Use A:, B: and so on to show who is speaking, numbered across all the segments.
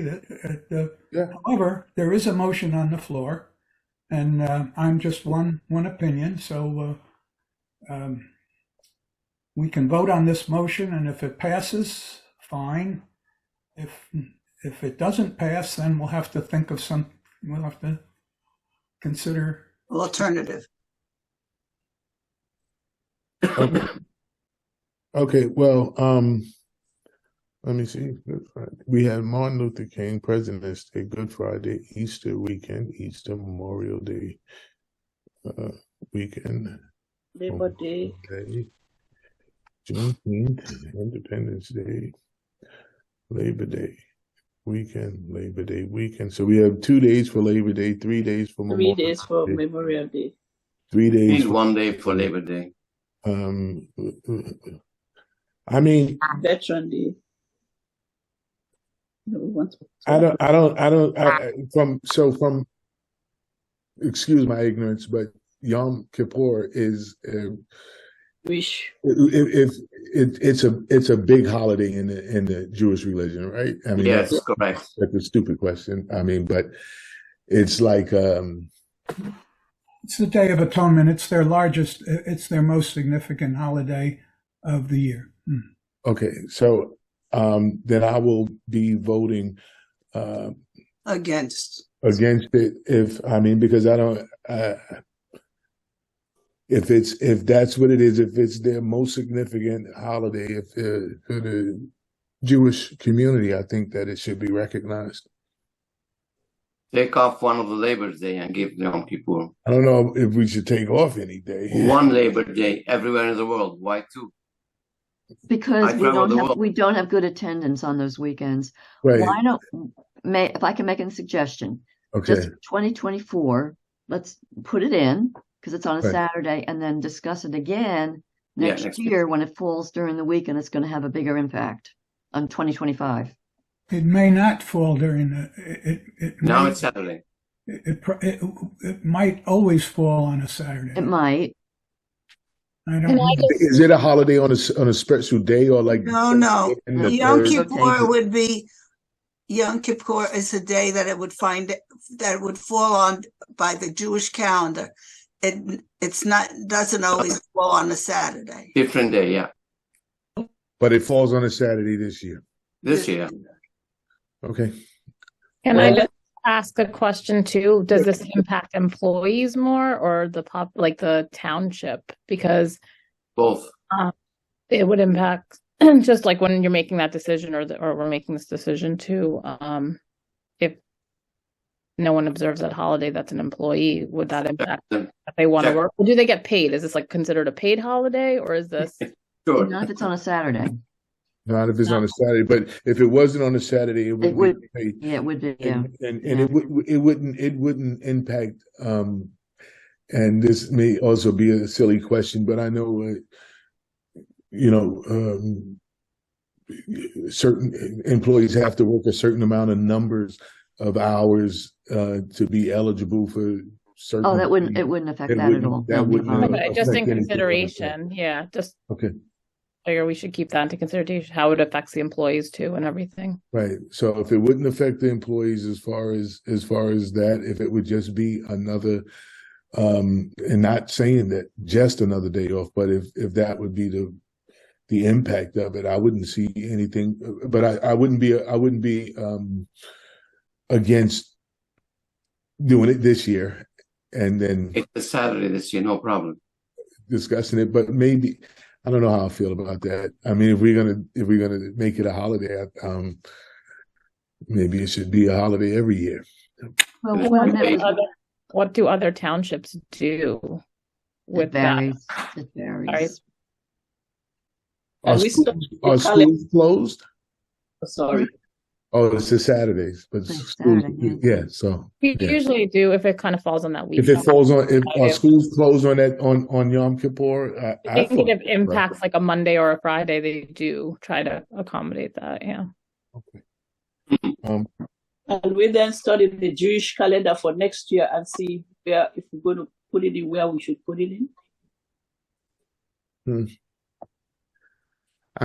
A: that, at the-
B: Yeah.
A: However, there is a motion on the floor, and uh, I'm just one, one opinion, so uh, um, we can vote on this motion, and if it passes, fine. If, if it doesn't pass, then we'll have to think of some, we'll have to consider,
C: alternative.
B: Okay. Okay, well, um, let me see. Good Friday. We had Martin Luther King, President's Day, Good Friday, Easter weekend, Easter Memorial Day, uh, weekend,
D: Labor
B: Oh.
D: Day,
B: Day, Juneteenth, Independence Day, Labor Day, weekend, Labor Day, weekend. So we have two days for Labor Day, three days for
D: three
B: Memorial,
D: days for
B: Day,
D: Memorial Day.
B: three days
E: Need one day for Labor Day.
B: um i mean
D: Veteran Day. No, we want to-
B: i don't i don't i don't I, I- from so from excuse my ignorance but yom kippur is uh,
D: Wish.
B: if, if it, it's a it's a big holiday in the in the jewish religion right i mean
E: Yes,
B: that's,
E: correct.
B: that's a stupid question i mean but it's like um
A: it's the Day of Atonement, it's their largest, it's their most significant holiday of the year. Hmm.
B: okay so um then i will be voting uh
C: Against.
B: against it if i mean because i don't uh, if it's if that's what it is if it's their most significant holiday if uh, for the jewish community i think that it should be recognized
E: Take off one of the Labor Day and give Yom Kippur.
B: i don't know if we should take off any day
E: One Labor Day everywhere in the world. Why two? I
F: Because we
E: travel
F: don't
E: the
F: have,
E: world.
F: we don't have good attendance on those weekends.
B: right
F: Why don't, may, if I can make a suggestion,
B: okay
F: just for 2024, let's put it in because it's on a
B: Right.
F: Saturday and then discuss it again
E: Yeah,
F: next
E: next
F: year when it falls during the week and it's going to have a bigger impact on 2025.
A: It may not fall during the, it, it. it
E: Now
A: may-
E: it's Saturday.
A: It, it, pro- it, it might always fall on a Saturday.
F: It might.
A: I don't
G: Can I
A: know.
G: just,
B: is it a holiday on a s- on a special day or like
C: No, no.
B: in the
C: Yom
B: third-
F: Kippur-
C: Kippur would be, Yom Kippur is a day that it would find, that it would fall on by the Jewish calendar. It, it's not, doesn't always fall on a Saturday.
E: Different day, yeah.
B: but it falls on a saturday this year
E: This year.
B: okay
G: can I
D: Well-
G: just ask a question too? Does this impact employees more or the pop, like the township? Because
E: Both.
G: it would impact just like when you're making that decision or the, or we're making this decision too. Um, if no one observes that holiday, that's an employee. Would that impact
E: Them.
G: if they want to
E: Check.
G: work? Or do they get paid? Is this like considered a paid holiday or is this?
E: Sure.
F: Not if it's on a Saturday.
B: not if it's on a saturday but if it wasn't on a saturday it would,
F: It would-
B: be
F: Yeah, it would be. Yeah.
B: and and, and it would it wouldn't it wouldn't impact um and this may also be a silly question but i know uh, you know um certain employees have to work a certain amount of numbers of hours uh to be eligible for certain
F: Oh, that wouldn't, it wouldn't affect
B: It
F: that at
B: wouldn't-
F: all.
B: that
F: No,
B: wouldn't-
F: no.
B: Uh,
G: Okay, just in
B: affect anything.
G: consideration, yeah, just
B: okay
G: figure we should keep that into consideration, how it affects the employees too and everything.
B: Right. So if it wouldn't affect the employees as far as as far as that, if it would just be another um and not saying that just another day off, but if if that would be the the impact of it, I wouldn't see anything but I I wouldn't be I wouldn't be um against doing it this year and then
E: It's a Saturday this year, no problem.
B: discussing it, but maybe I don't know how I feel about that. I mean, if we're gonna if we're gonna make it a holiday, I- um, maybe it should be a holiday every year.
F: Well,
E: It
F: one
E: would
F: that
E: be.
F: was-
G: Other- What do other townships do
F: It
G: with that?
F: varies. It
G: Sorry.
F: varies.
B: Are,
D: Are we
B: schools-
D: still-
B: are
D: we call it-
B: schools closed?
D: Sorry.
B: Oh, it's the Saturdays, but
F: It's
B: schools,
F: Saturday,
B: yeah. So
G: We
B: Yeah.
G: usually do if it kind of falls on that week.
B: if it falls on, if are
G: Okay.
B: schools closed on that on on Yom Kippur, I,
G: I
B: I
G: think
B: thought,
G: if it impacts like a Monday or a Friday, they do try to accommodate that, yeah.
B: um,
D: And we then study the Jewish calendar for next year and see where, if we're going to put it in where we should put it in.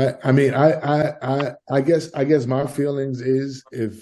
B: I I mean, I I I I guess I guess my feelings is if